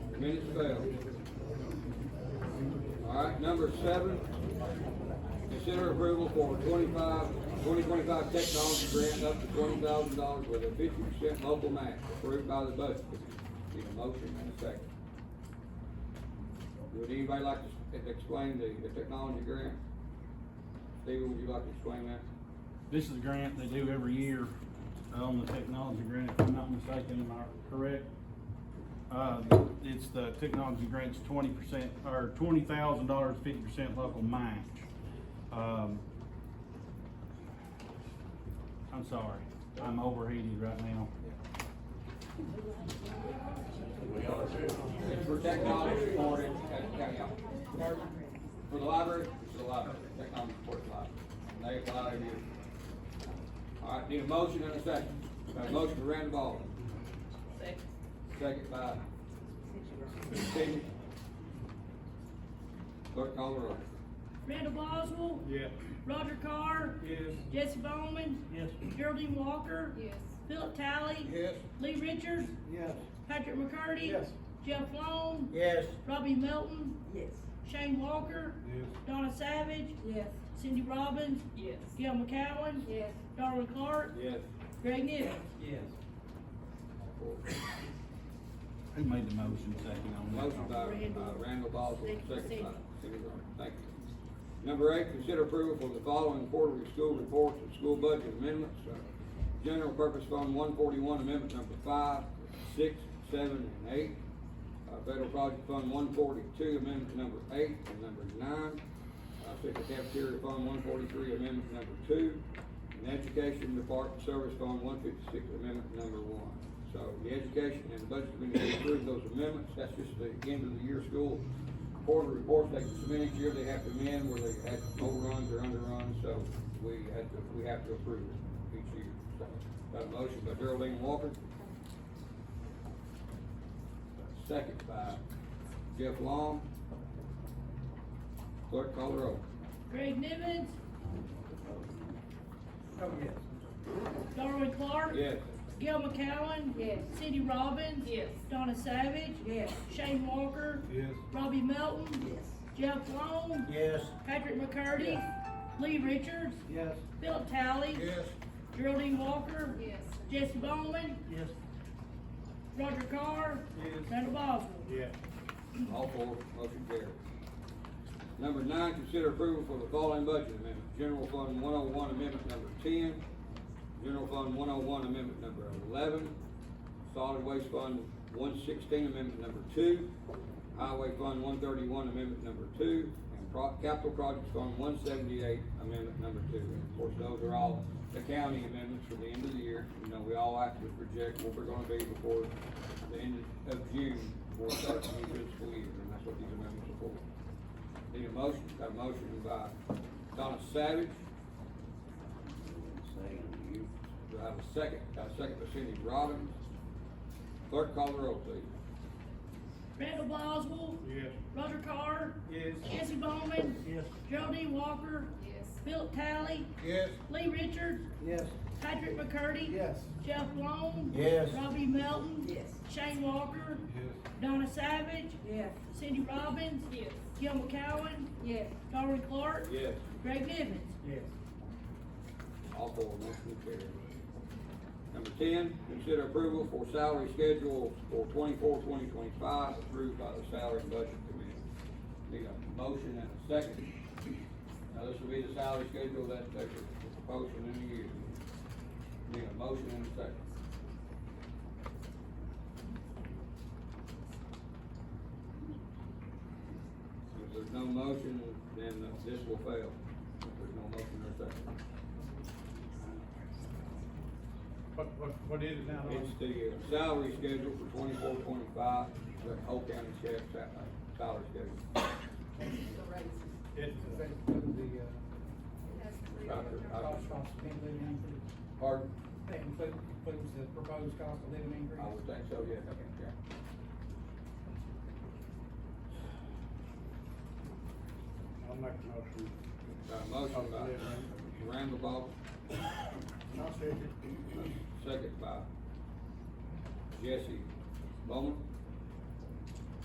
Minutes failed. All right, number seven, consider approval for 25 2025 technology grant up to twenty thousand dollars with a fifty percent local match approved by the budget committee. Need a motion and a second. Would anybody like to s- explain the, the technology grant? Stephen, would you like to explain that? This is a grant they do every year uh, on the technology grant, if I'm not mistaken, am I correct? Uh, it's the technology grant's twenty percent, or twenty thousand dollars, fifty percent local match. Um, I'm sorry, I'm overheated right now. It's for technology support, it's, yeah, yeah. For the library, for the library, technology support the library. They apply every year. All right, need a motion and a second. Got a motion for Randall Baldwin, Second. second by Stevens. Clerk call the roll. Randall Boswell. Yeah. Roger Carr. Yes. Jesse Bowman. Yes. Geraldine Walker. Yes. Philip Talley. Yes. Lee Richards. Yes. Patrick McCurdy. Yes. Jeff Long. Yes. Robbie Melton. Yes. Shane Walker. Yes. Donna Savage. Yes. Cindy Robbins. Yes. Gil McCowen. Yes. Darwin Clark. Yes. Greg Nivens. Yes. Who made the motion second on that? Motion by, by Randall Boswell, second by Cindy Robbins. Thank you. Number eight, consider approval for the following quarterly school reports and school budget amendments. Uh, General Purpose Fund one forty-one, amendment number five, six, seven, and eight. Uh, Federal Project Fund one forty-two, amendment number eight and number nine. Uh, Central Cafeteria Fund one forty-three, amendment number two. And Education Department Service Fund one fifty-six, amendment number one. So the Education and Budget Committee approved those amendments. That's just the end of the year school quarter reports they can submit each year. They have to amend where they had overruns or underruns, so we had to, we have to approve it each year. So, Got a motion by Geraldine Walker. Second by Jeff Long. Clerk call the roll. Greg Nivens. Oh, yes. Darwin Clark. Yes. Gil McCowen. Yes. Cindy Robbins. Yes. Donna Savage. Yes. Shane Walker. Yes. Robbie Melton. Yes. Jeff Long. Yes. Patrick McCurdy. Lee Richards. Yes. Philip Talley. Geraldine Walker. Yes. Jesse Bowman. Yes. Roger Carr. Yes. Randall Boswell. Yeah. All four, motion carries. Number nine, consider approval for the following budget amendment. General Fund one oh one amendment number ten, General Fund one oh one amendment number eleven, Solid Waste Fund one sixteen amendment number two, Highway Fund one thirty-one amendment number two, and Pro- Capital Projects Fund one seventy-eight amendment number two. And Of course, those are all the county amendments for the end of the year. You know, we all have to project what we're gonna be before the end of June, before it starts the new fiscal year, and that's what these amendments are for. Need a motion, got a motion by Donna Savage, do I have a second? Got a second by Cindy Robbins. Clerk call the roll, please. Randall Boswell. Yes. Roger Carr. Yes. Jesse Bowman. Yes. Geraldine Walker. Yes. Philip Talley. Yes. Lee Richards. Yes. Patrick McCurdy. Yes. Jeff Long. Yes. Robbie Melton. Yes. Shane Walker. Yes. Donna Savage. Yes. Cindy Robbins. Yes. Gil McCowen. Yes. Darwin Clark. Yes. Greg Nivens. Yes. All four motion carried. Number ten, consider approval for salary schedule for 24-2025 approved by the Salary and Budget Committee. Need a motion and a second. Now, this will be the salary schedule that they were proposing in the year. Need a motion and a second. If there's no motion, then this will fail. If there's no motion or second. What, what, what is it now? It's the uh, salary schedule for twenty-four, twenty-five, the whole county sheriff's sal- uh, salary schedule. It's the, uh, Dr. cost, cost of living increase. Pardon? That includes, includes the proposed cost of living increase. I would think so, yes, yeah. I'll make a motion. Got a motion by Randall Boswell, I'll second. second by Jesse Bowman.